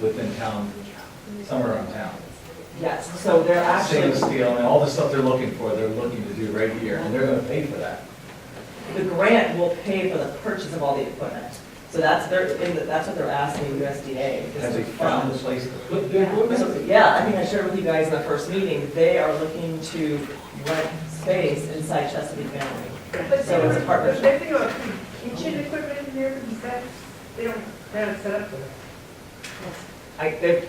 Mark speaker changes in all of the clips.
Speaker 1: within town, somewhere around town.
Speaker 2: Yes, so they're actually,
Speaker 1: Stainless steel and all the stuff they're looking for, they're looking to do right here, and they're gonna pay for that.
Speaker 2: the grant will pay for the purchase of all the equipment. So that's their, in the- that's what they're asking USDA. is
Speaker 1: Have
Speaker 2: to
Speaker 1: they found
Speaker 2: fund.
Speaker 1: a place to put their
Speaker 2: So,
Speaker 1: equipment?
Speaker 2: Yeah, I think I shared with you guys in the first meeting, they are looking to rent space inside Chesapeake Family.
Speaker 3: But
Speaker 2: So it's a partnership.
Speaker 3: They think about kitchen equipment in there, because that, they don't, they haven't set up for that.
Speaker 2: I, they,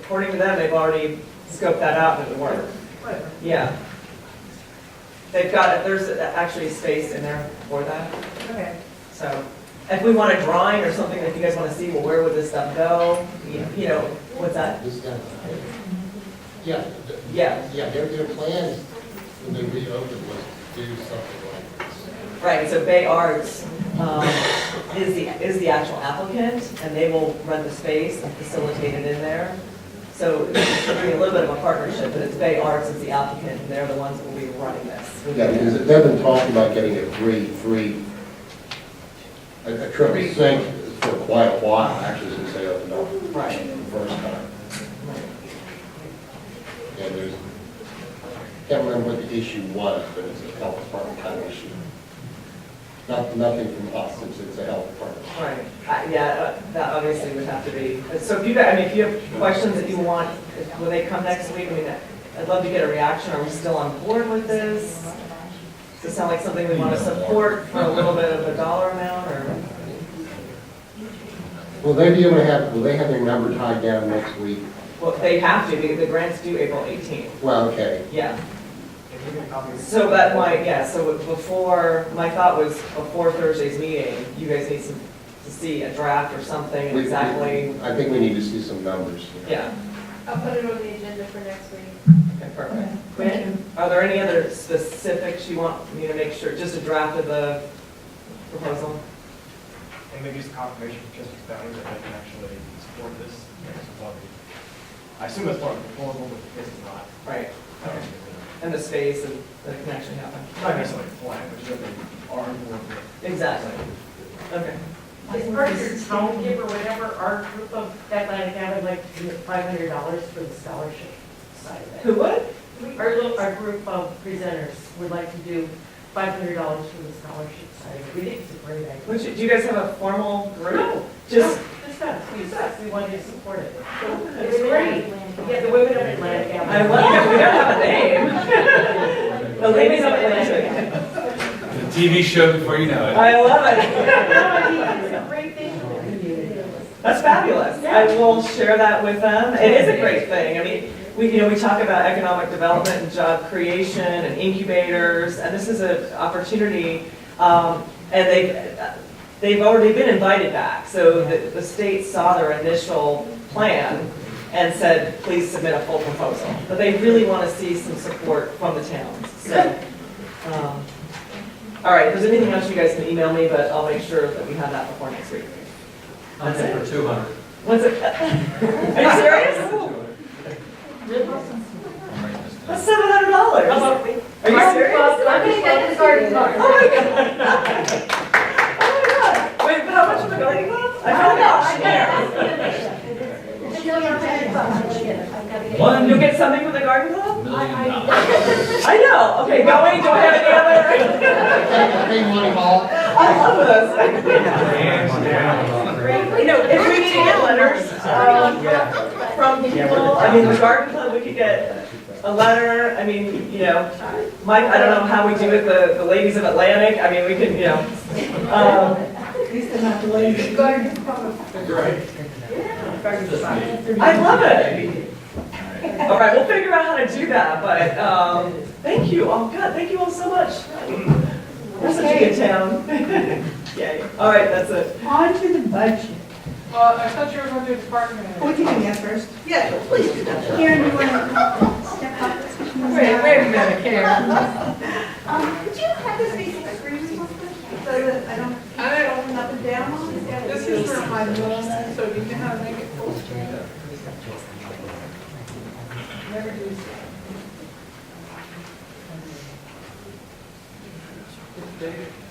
Speaker 2: according to them, they've already scoped that out and it worked.
Speaker 3: Whatever.
Speaker 2: Yeah. They've got, there's actually space in there for that.
Speaker 3: Okay.
Speaker 2: So if we want a drawing or something that you guys want to see, well, where would this stuff go? You- You know, what's that?
Speaker 4: This kind of- Yeah, th-
Speaker 2: Yeah.
Speaker 4: yeah, their, their plan when they reopened was to do something like this.
Speaker 2: Right, so Bay Arts um, is the, is the actual applicant, and they will rent the space and facilitate it in there. So it's gonna be a little bit of a partnership, but it's Bay Arts is the applicant, and they're the ones who will be running this.
Speaker 4: Yeah, because they've been talking about getting a free, free, a a triple sink for quite a while, actually, since they opened up
Speaker 2: Right.
Speaker 4: the first time. And there's, can't remember what the issue was, but it's a health department kind of issue. Not, nothing from us, since it's a health department.
Speaker 2: Right, Uh, yeah, uh, that obviously would have to be, so if you, guys- I mean, if you have questions that you want, if- will they come next week? I mean, I'd love to get a reaction, are we still on board with this? Does it sound like something we want to support for a little bit of a dollar amount, or?
Speaker 4: Will they be able to have, will they have their number tied down next week?
Speaker 2: Well, they have to, because the grant's due April 18th,
Speaker 4: Well, okay,
Speaker 2: yeah. So that might, yeah, so before, my thought was before Thursday's meeting, you guys need some, to see a draft or something
Speaker 4: We-
Speaker 2: exactly,
Speaker 4: I think we need to see some numbers.
Speaker 2: yeah.
Speaker 3: I'll put it on the agenda for next week.
Speaker 2: Okay, perfect. Quinn, are there any other specifics you want me to make sure, just a draft of the proposal?
Speaker 5: And maybe just confirmation from Justice Boundary that they can actually support this. next lobby. I assume that's part of the proposal, but if it's not,
Speaker 2: Right,
Speaker 5: I don't think it's
Speaker 2: and the space and that it can actually happen.
Speaker 5: not necessarily a plan, but just that they are involved with.
Speaker 2: Exactly. Okay,
Speaker 6: Is part of your town give or whatever, our group of Atlantic Avenue, like, to do five hundred dollars for the scholarship side of it.
Speaker 2: who would?
Speaker 6: We- Our little, our group of presenters would like to do five hundred dollars for the scholarship side of it. We think it's a great idea.
Speaker 2: Would you, do you guys have a formal group?
Speaker 6: No.
Speaker 2: Just,
Speaker 6: Just us, we, us, we wanted to support it.
Speaker 2: I
Speaker 6: It's great. Yeah, the women of Atlantic Avenue.
Speaker 2: love it, we don't have a name. The ladies of Atlantic.
Speaker 1: The TV show before you know it.
Speaker 2: I love it.
Speaker 6: It's a great thing for the community.
Speaker 2: That's fabulous. I will share that with them. It is a great thing. I mean, we, you know, we talk about economic development and job creation and incubators, and this is an opportunity. um, And they've, they've already been invited back. So the, the state saw their initial plan and said, please submit a full proposal. But they really want to see some support from the towns, so. um, All right, if there's anything else, you guys can email me, but I'll make sure that we have that before next week.
Speaker 7: I'm in for two hundred.
Speaker 2: What's it? Are you serious? That's seven hundred dollars. Are you serious?
Speaker 6: I'm just like the garden
Speaker 2: Oh my god. Oh my god. Wait, but how much for the garden club? I found out.
Speaker 1: One
Speaker 2: You'll
Speaker 1: million
Speaker 2: get something for the garden club?
Speaker 1: dollars.
Speaker 2: I know. Okay, go away. Don't have any other.
Speaker 4: Hey, Money Ball.
Speaker 2: I love this. You know, if we get letters, um, from people, I mean, the garden club, we could get a letter. I mean, you know, Mike, I don't know how we do it, the, the ladies of Atlantic. I mean, we could, you know. um, I love it. All right, we'll figure out how to do that, but, um, thank you all, God, thank you all so much. We're such a good town. Yay, all right, that's it.
Speaker 8: On to the budget.
Speaker 3: Well, I thought you were going to do department
Speaker 8: We can do that first.
Speaker 3: Yeah, please do that.
Speaker 8: Karen, you want to step up?
Speaker 3: Wait, wait a minute, Karen.
Speaker 8: Um, could you have this basic agreement with so that I don't
Speaker 3: I don't,
Speaker 8: open up and down on it?
Speaker 3: this is for my little, so do you know how to make it full screen? Never do so.